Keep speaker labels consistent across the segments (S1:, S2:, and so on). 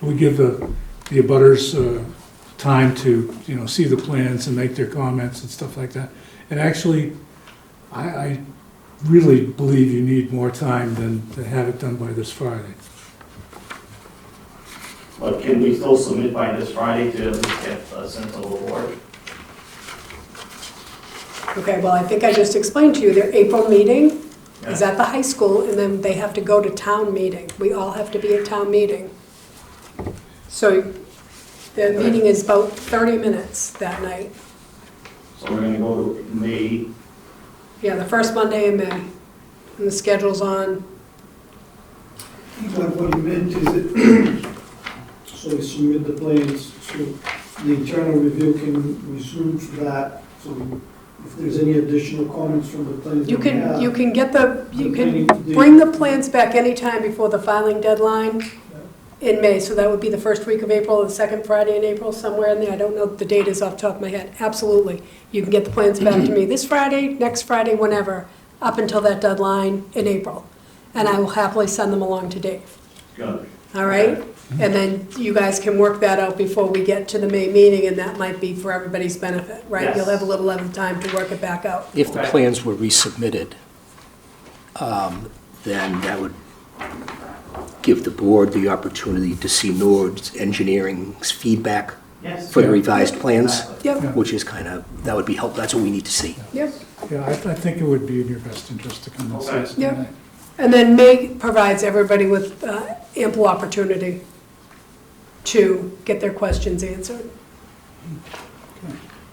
S1: We give the, the abutters uh, time to, you know, see the plans and make their comments and stuff like that. And actually, I, I really believe you need more time than to have it done by this Friday.
S2: But can we still submit by this Friday to at least get a sense of the board?
S3: Okay, well, I think I just explained to you, their April meeting is
S2: Yeah.
S3: at the high school, and then they have to go to town meeting. We all have to be at town meeting. So the meeting is about 30 minutes that night.
S2: So we're gonna go to May,
S3: Yeah, the first Monday in May, and the schedule's on.
S4: But what he meant is that, so we submit the plans, so the internal review can resume to that. So if there's any additional comments from the plans.
S3: You
S4: that we
S3: can,
S4: have,
S3: you can get the, you
S4: the
S3: can
S4: planning-
S3: bring the plans back anytime before the filing deadline in May, so that would be the first week of April, or the second Friday in April, somewhere in there, I don't know, the date is off the top of my head, absolutely. You can get the plans back to me this Friday, next Friday, whenever, up until that deadline in April. And I will happily send them along to Dave,
S2: good.
S3: all right? And then you guys can work that out before we get to the May meeting, and that might be for everybody's benefit, right?
S2: Yes.
S3: You'll have a little other time to work it back out.
S5: If the
S2: Okay.
S5: plans were resubmitted, um, then that would give the board the opportunity to see Nord's engineering's feedback
S2: Yes.
S5: for the revised plans,
S3: Yep,
S5: which is kind of, that would be helpful, that's what we need to see.
S3: yep.
S1: Yeah, I, I think it would be in your best interest to come and see us
S3: Okay. Yeah.
S1: tonight.
S3: And then May provides everybody with uh, ample opportunity to get their questions answered.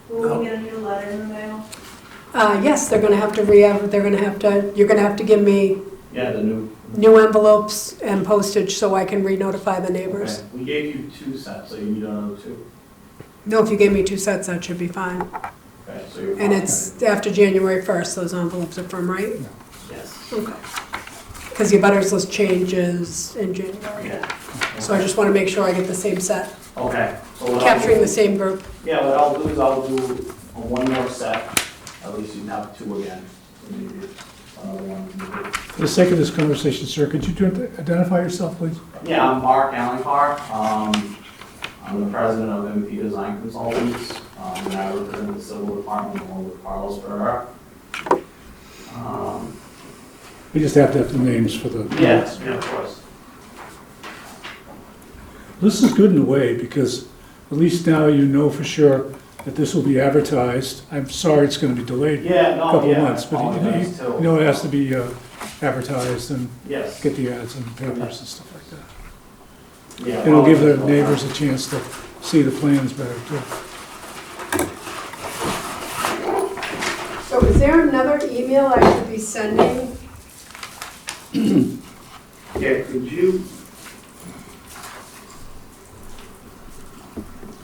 S6: Will we get a new letter in the mail?
S3: Uh, Yes, they're going to have to re, they're going to have to, you're going to have to give me
S2: Yeah, the new.
S3: new envelopes and postage so I can re-notify the neighbors.
S2: Okay. We gave you two sets, so you need another two.
S3: No, if you gave me two sets, that should be fine.
S2: Okay, so you're.
S3: And it's after January 1st, those envelopes are from, right?
S2: Yes,
S3: Okay. Because the abutters list changes in January.
S2: yeah.
S3: So I just want to make sure I get the same set,
S2: Okay. so what I'll
S3: capturing
S2: do-
S3: the same group.
S2: Yeah, what I'll do is I'll do a one more set, at least you have two again. Maybe another one.
S1: For the sake of this conversation, sir, could you do- identify yourself, please?
S2: Yeah, I'm Mark Allen Carr. Um, I'm the president of MP Design Consultants, um, and I represent the civil department along with Carlos Ferrer. Um,
S1: We just have to have the names for the.
S2: Yes, yeah, of course.
S1: This is good in a way, because at least now you know for sure that this will be advertised. I'm sorry it's gonna be delayed a
S2: Yeah, no,
S1: couple of
S2: yeah.
S1: months, but you-
S2: apologize,
S1: you
S2: too.
S1: you know it has to be uh, advertised and
S2: Yes.
S1: get the ads in the papers and stuff like that.
S2: yeah,
S1: It'll give the
S2: apologize.
S1: neighbors a chance to see the plans better, too.
S3: So is there another email I should be sending?
S2: Yeah, could you?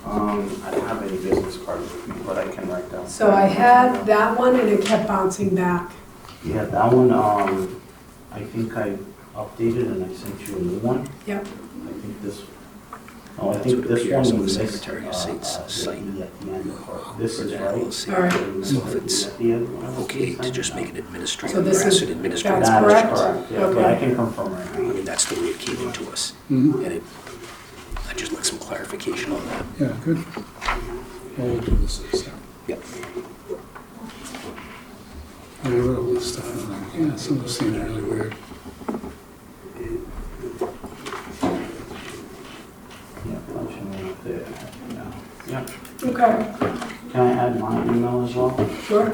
S2: Um, I don't have any business cards with me, but I can write down.
S3: So I had that one and it kept bouncing back.
S7: Yeah, that one, um, I think I updated and I sent you a new one.
S3: Yep.
S7: I think this, no, I
S5: That's
S7: think
S5: what
S7: this
S5: appears
S7: one
S5: on the
S7: was missed.
S5: Secretary of
S7: uh,
S5: State's
S7: uh, the
S5: site.
S7: E at the end. This is
S5: That we'll
S7: right.
S5: see.
S3: All right.
S5: So if it's
S7: At the end, what else
S5: Okay,
S7: did I
S5: to
S7: send?
S5: just make it
S3: So
S5: administrative,
S3: this
S5: pass
S3: is-
S5: it administrative.
S3: That's
S7: That is
S3: correct?
S7: correct, yeah, but I
S3: Okay.
S7: can confirm right
S5: I
S7: now.
S5: mean, that's the way it came into us.
S1: Mhm.
S5: And it, I'd just like some clarification on that.
S1: Yeah, good. Well, we'll do this this time.
S5: Yep.
S1: I wrote all this stuff and I'm like, yeah, some of this seems really weird.
S7: Yeah, that should be up there, yeah. Yeah.
S3: Okay,
S7: Can I add my email as well?
S3: sure.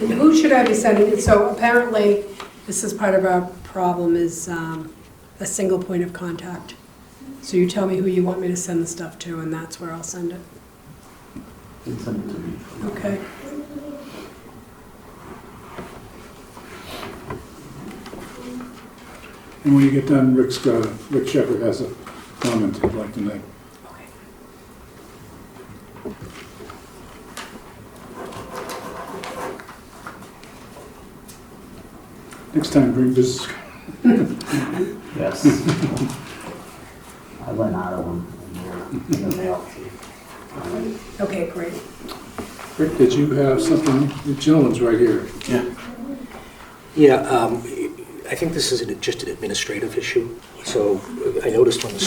S3: And who should I be sending it? So apparently, this is part of our problem is um, a single point of contact. So you tell me who you want me to send the stuff to and that's where I'll send it.
S7: You can Send it to me.
S3: Okay.
S1: And when you get done, Rick's got, Rick Shepherd has a comment he'd like to make.
S3: Okay.
S1: Next time, bring business
S7: Yes. I went out of them in the- in the mail. All right.
S3: Okay, great.
S1: Rick, did you have something? The gentleman's right here.
S5: Yeah, um, I think this is an- just an administrative issue. So I noticed on the